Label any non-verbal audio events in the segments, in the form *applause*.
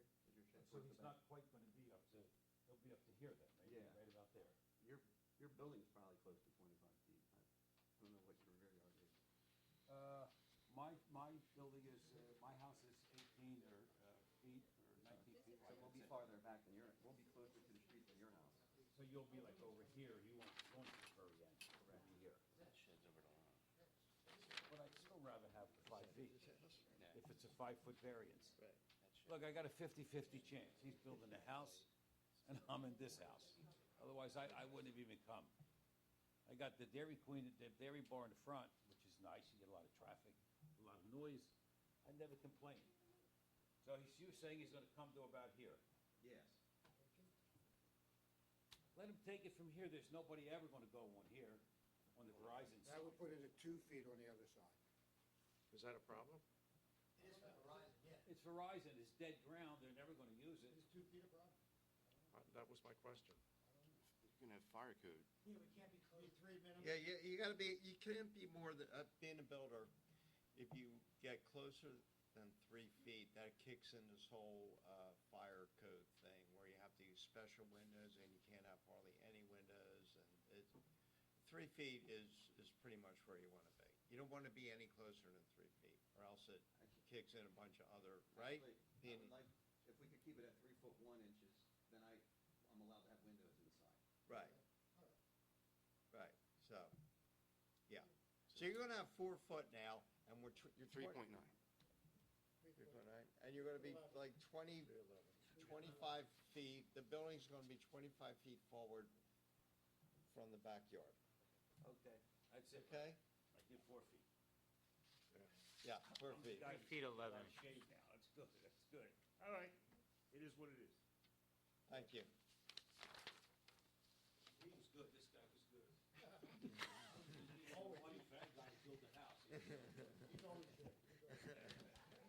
So towards the he's back. not quite gonna be up to, he'll be up to here then, maybe Yeah. right about there. Your, your building's probably close to twenty-five feet. I don't know what your rear yard is. Uh, my, my building is, uh, my house is eighteen or, uh, feet or nineteen feet. So wide. we'll be farther back than your, we'll be closer to the street than your house. So you'll be like over here, you won't, you won't be very end, Correct. Here. That shed's over the lawn. but I'd still rather have the five feet, Yeah, if it's a five-foot variance. Right. that shed. Look, I got a fifty-fifty chance, he's building a house, and I'm in this house, otherwise I, I wouldn't have even come. I got the Dairy Queen, the Dairy Bar in the front, which is nice, you get a lot of traffic, a lot of noise, I never complained. So he's, you saying he's gonna come to about here, Yes. let him take it from here, there's nobody ever gonna go on here, on the Verizon side. That would put it at two feet on the other side. Is that a problem? It is for Verizon, yeah. It's Verizon, it's dead ground, they're never gonna use it. It is two feet above. Uh, That was my question. You can have fire code. Yeah, we can't be close to three minimum. Yeah, you, you gotta be, you can't be more than, uh, being a builder, if you get closer than three feet, that kicks in this whole, uh, fire code thing, where you have to use special windows, and you can't have hardly any windows, and it, three feet is, is pretty much where you wanna be. You don't wanna be any closer than three feet, or else it kicks in a bunch of other, right? I Being- would like, if we could keep it at three foot one inches, then I, I'm allowed to have windows inside. *laughs* Right. Right, so, yeah. So you're gonna have four foot now, and we're tw- you're You're three twenty- point nine. Three point nine, and you're gonna be like twenty, twenty-five feet, the building's gonna be twenty-five feet forward from the backyard, Okay. That's it. okay? I did four feet. Yeah, four feet. I- Feet 11. I'm shaved now, that's good, that's good. All right, it is what it is. Thank you. *laughs* He was good, this guy was good. Oh, funny bad guy built the house. He's always there. He is good, that. He's good.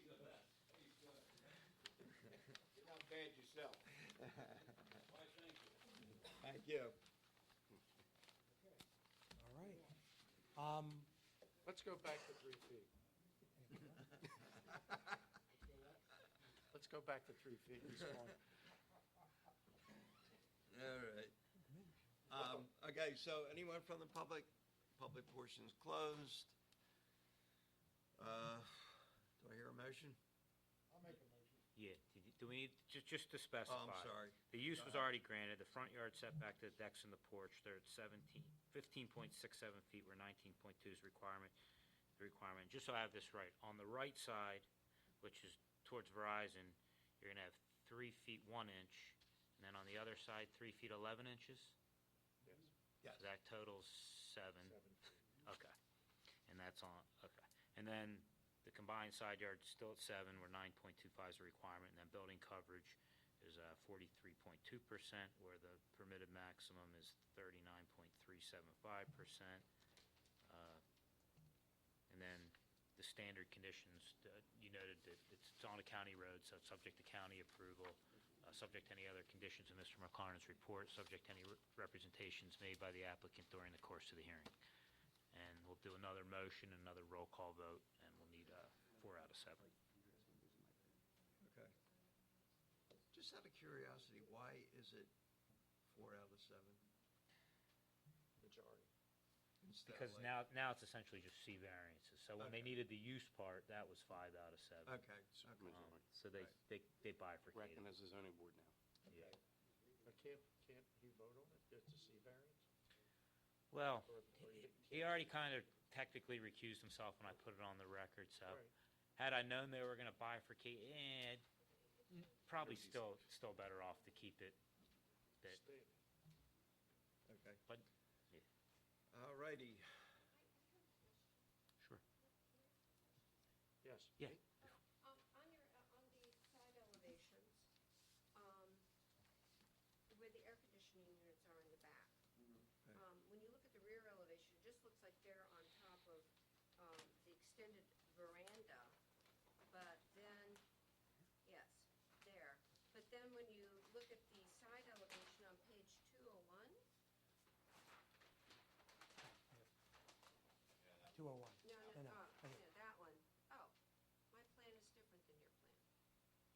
You're not bad yourself. Why, thank you. Thank you. *laughs* All right. Um, Let's go back to three feet. Let's go back to three feet. Ms. Vaughn. All right. Um, okay, so anyone from the public? Public portion's closed. Uh, do I hear a motion? I'll make a motion. Yeah, did you- do we need, just, just to Um, specify? Oh, sorry. The use was Uh-uh. already granted, the front yard setback to the decks and the porch, they're at seventeen, fifteen point six seven feet where nineteen point two is requirement, the requirement, just so I have this right, on the right side, which is towards Verizon, you're gonna have three feet one inch, and then on the other side, three feet eleven inches? Yes, Yes. So that totals seven. seven. Okay, and that's on, okay. And then the combined side yard's still at seven, where nine point two five is a requirement, and then building coverage is uh, forty-three point two percent, where the permitted maximum is thirty-nine point three seven five percent. Uh, And then the standard conditions, uh, you noted that it's it's on a county road, so it's subject to county approval, uh, subject to any other conditions in Mr. McLaren's report, subject to any re- representations made by the applicant during the course of the hearing. And we'll do another motion, another roll call vote, and we'll need uh, four out of seven. Okay. Just out of curiosity, why is it four out of seven? Majority. Instead of Because like- now, now it's essentially just C variances. So when they Okay. needed the use part, that was five out of seven. Okay, okay. Um, So they, Right. they, they bifurcated. Recognized as a zoning board now. Yeah. But can't, can't he vote on it? It's a C variance? Well, Or- or you Oh, he already kind of technically recused himself when I put it on the record, so. Right. Had I known they were gonna bifurcate, eh, probably still, still better off to keep it. That, Stay. Okay, but, all righty. sure, Yes. yeah. Um, On your, uh, on the side elevations, um, where the air conditioning units are in the back, Okay. um, when you look at the rear elevation, it just looks like they're on top of um, the extended veranda, but then, yes, there. But then when you look at the side elevation on page 201, two oh one. uh, Oh,